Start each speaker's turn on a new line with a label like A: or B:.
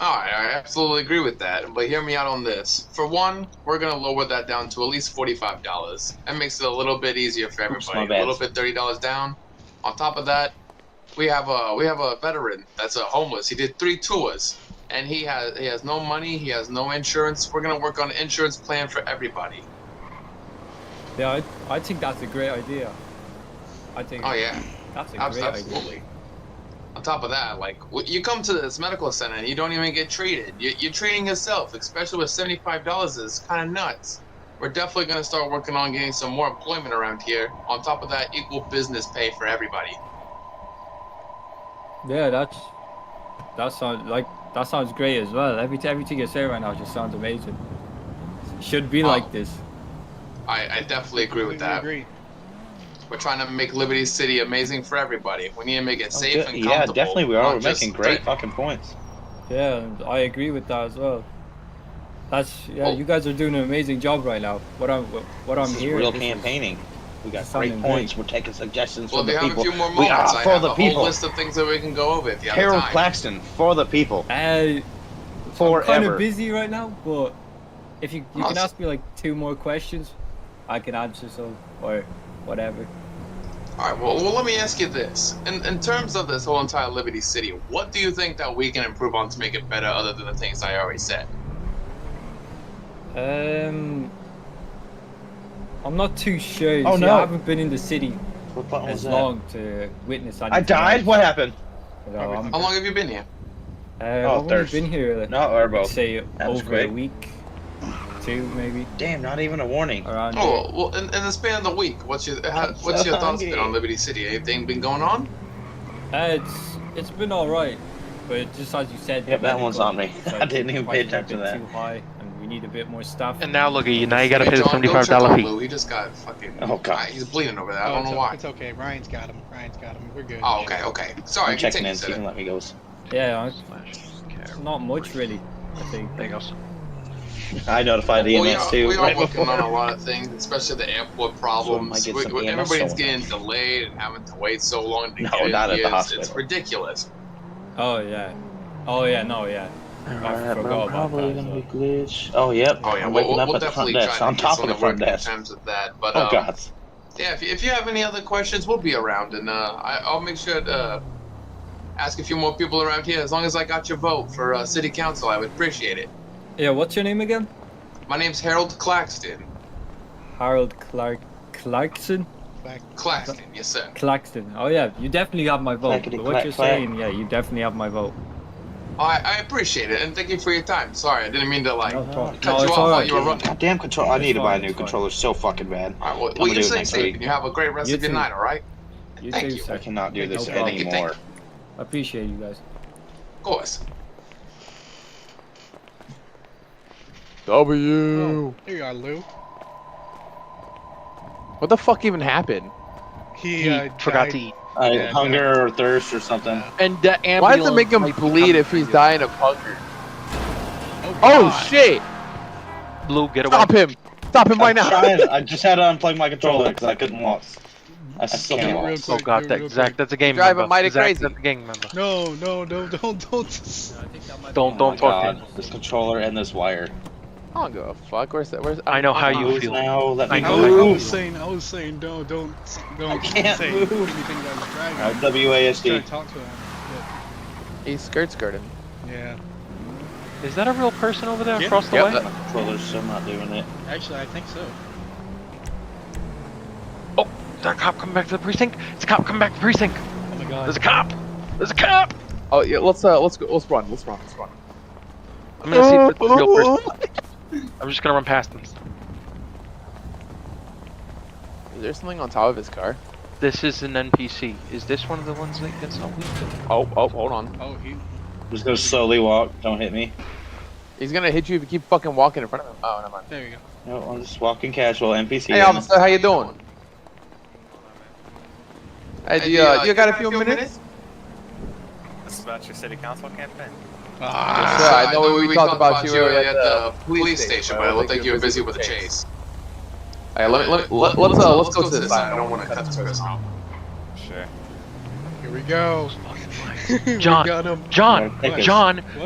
A: All right, I absolutely agree with that, but hear me out on this. For one, we're gonna lower that down to at least forty-five dollars. That makes it a little bit easier for
B: Oops, my
A: everybody.
B: bad.
A: a little bit thirty dollars down. On top of that, we have a we have a veteran that's a homeless. He did three tours, and he has he has no money. He has no insurance. We're gonna work on an insurance plan for everybody.
C: Yeah, I, I think that's a great idea. I think
A: Oh yeah.
C: that's a
A: Abs-
C: great idea.
A: Absolutely. On top of that, like w- you come to this medical center and you don't even get treated. You- You're treating yourself, especially with seventy-five dollars. is kind of nuts. We're definitely gonna start working on getting some more employment around here. On top of that, equal business pay for everybody.
C: Yeah, that's that sounds like that sounds great as well. Every everything you say right now just sounds amazing. Should be
A: Oh.
C: like this.
A: I, I definitely agree with that.
D: Agree.
A: We're trying to make Liberty City amazing for everybody. We need to make it safe
B: Oh,
A: and
B: de-
A: comfortable.
B: yeah, definitely we are.
A: not
B: We're
A: just
B: making great
A: threat-
B: fucking points.
C: Yeah, and I agree with that as well. That's yeah.
A: Oh.
C: You guys are doing an amazing job right now. What I'm what I'm
B: this is
C: hearing.
B: real
C: this is-
B: campaigning. We got
C: Sounding
B: great
C: great.
B: points. We're taking suggestions
A: Well,
B: from
A: we
B: the
A: have
B: people.
A: a few more
B: we are
A: moments. I
B: for
A: have
B: the
A: a
B: people.
A: whole list of things that we can go over if you have
B: Harold
A: time.
B: Claxton for the people
C: Hey, I'm kind of
B: forever.
C: Uh, busy right now, but if you you can
A: Awesome.
C: ask me like two more questions, I can answer some or whatever.
A: All right. Well, well, let me ask you this: in, in terms of this whole entire Liberty City, what do you think that we can improve on to make it better, other than the things I already said?
C: Um, I'm not too sure.
B: Oh,
C: See,
B: no.
C: I haven't been in the city
B: What button was
C: as
B: that?
C: long to witness.
B: I died. What happened?
C: You know, I'm,
A: How long have you been here?
C: um, uh, I've only
B: Oh, thirst.
C: been here like,
B: No, Erbo.
C: I'd say
B: That was
C: over
B: quick.
C: a week, two maybe
B: Damn, not even a warning.
C: around.
A: Oh, well, in, in the span of the week, what's your how, what's your thoughts been on Liberty City? Anything been going on?
C: there. Uh, it's it's been all right, but just as you said,
B: Yep,
C: the
B: that one's
C: medical,
B: on me.
C: it's
B: I
C: like
B: didn't even pay
C: prices are a
B: attention to
C: bit
B: that.
C: Too high, and we need a bit more staff.
E: And now look at you. Now you gotta pay the
A: John, don't
E: seventy-five
A: trip
E: dollar
A: on
E: fee.
A: Lou, He just got fucking.
B: Oh, God.
A: I- he's bleeding over there. I
D: Oh,
A: don't
D: it's
A: know
D: o-
A: why.
D: It's okay. Ryan's got him. Ryan's got him. We're good.
A: Oh, okay, okay. Sorry,
B: I'm checking
A: continue.
B: in. so You
A: Sir.
B: can let me go.
C: Yeah,
E: Slash care.
C: it's not much really. I think.
E: There goes.
B: I notified
A: We
B: EMS
A: are,
B: E too.
A: we are
B: right
A: working on
B: before.
A: a lot of things, especially the airport problems.
B: get
A: We-
B: some E
A: we-
B: EMS
A: everybody's
B: going.
A: getting delayed and having to wait so long to
B: No,
A: get in
B: not at the
A: here. It's- It's
B: hospital.
A: ridiculous.
C: Oh yeah. Oh yeah. No yeah.
B: Alright,
C: forgot
B: bro,
C: about
B: probably
C: that,
B: gonna
C: so-
B: be glitch. Oh, yep.
A: Oh yeah,
B: I'm
A: we'll,
B: waking
A: we'll,
B: up
A: we'll
B: at the
A: definitely
B: front desk.
A: try
B: On
A: to get
B: top
A: some
B: of the front
A: work in
B: desk.
A: terms of that. But
B: Oh
A: um,
B: god.
A: yeah, if, if you have any other questions, we'll be around, and uh, I, I'll make sure to uh, ask a few more people around here. As long as I got your vote for uh, city council, I would appreciate it.
C: Yeah. What's your name again?
A: My name's Harold Claxton.
C: Harold Clark Clarkson?
A: Claxton, yes sir.
C: Clarkson. Oh yeah, you definitely have my vote.
B: Clackety
C: But what
B: clack
C: you're
B: clack.
C: saying, yeah, you definitely have my vote.
A: I, I appreciate it, and thank you for your time. Sorry, I didn't mean to like.
C: No, problem.
A: cut
C: no
A: you
C: it's
A: off
C: all
A: while
C: right.
A: you were running.
B: Goddamn control. I
C: It's
B: need to buy a
C: fine,
B: new
C: it's fine.
B: controller so fucking bad.
A: All right, well,
B: gonna
A: well you
B: do it
A: say
B: next
A: safe,
B: week.
A: and you have a great rest
C: You
A: of your
C: too.
A: night. All right.
C: You
A: Thank
C: too,
A: you.
B: I
C: sir.
B: cannot do this
C: No problem.
B: anymore.
C: I appreciate you guys.
A: Of course.
F: W.
D: There you are, Lou.
F: What the fuck even happened?
D: He,
E: He
D: uh,
E: forgot
D: died.
E: to eat.
B: Uh,
D: Yeah,
B: hunger or thirst or something.
F: And the ambulance. Why does it make him bleed if he's dying of hunger?
D: Oh,
F: Oh
D: God.
F: shit!
E: Blue, get away.
F: Stop him! Stop him right
B: I'm
F: now!
B: trying. I just had to unplug my controller because I couldn't walk. I still
D: Get
B: can't
D: real
B: walk.
E: Oh
D: quick,
E: god,
D: get real
E: that, Zach,
D: quick.
E: that's a game
F: Driving
E: member.
F: mighty
E: Zach,
F: crazy.
E: that's a gang member.
D: No, no, no, don't, don't.
E: Don't, don't
B: oh my
E: fuck
B: God. This controller and this wire.
F: I don't give a fuck. Where's that? Where's
E: I know how you
B: Move
E: feel.
B: Now, let me
E: I
D: I
E: know,
D: was, I
B: move.
D: was saying, I was saying, no, don't, don't
B: I can't
D: say
B: move.
D: anything about his driving.
B: Alright,
D: Try
B: WASD.
D: to talk to him.
F: he's skirt skirting.
D: but- yeah.
E: Is that a real person over there
D: Yeah.
E: across the
F: Yep,
E: way?
F: that-
B: My controller's still not doing it.
D: Actually, I think so.
E: Is that a cop coming back to the precinct? It's a cop coming back to the precinct.
D: Oh my
E: There's a
D: god.
E: cop. There's a cop.
F: Oh yeah, let's uh, let's go. Let's run. Let's run. Let's run.
E: I'm gonna see if it's a real person. I'm just gonna run past him.
F: Is there something on top of his car?
E: This is an NPC. Is this one of the ones that gets not weak?
F: Oh, oh, hold on.
D: Oh, he.
B: I'm just gonna slowly walk. Don't hit me.
F: He's gonna hit you if you keep fucking walking in front of him. Oh, never mind.
D: There you go.
B: No, I'm just walking casual. NPC.
F: Hey, officer, how you doing? Hey, do
A: Hey,
F: you,
A: do you,
F: uh, you got a few minutes?
G: This is about your city council campaign.
D: Ah,
F: sir, I know we talked about you at
A: at
F: the
A: the police station, but it looked like you were busy with a chase.
F: Hey, let, let, let, let's uh, let's go to the side.
A: I don't want to cut this person off.
G: Sure.
D: here we go.
E: John.
D: we got him.
E: John.
B: Okay.
E: John.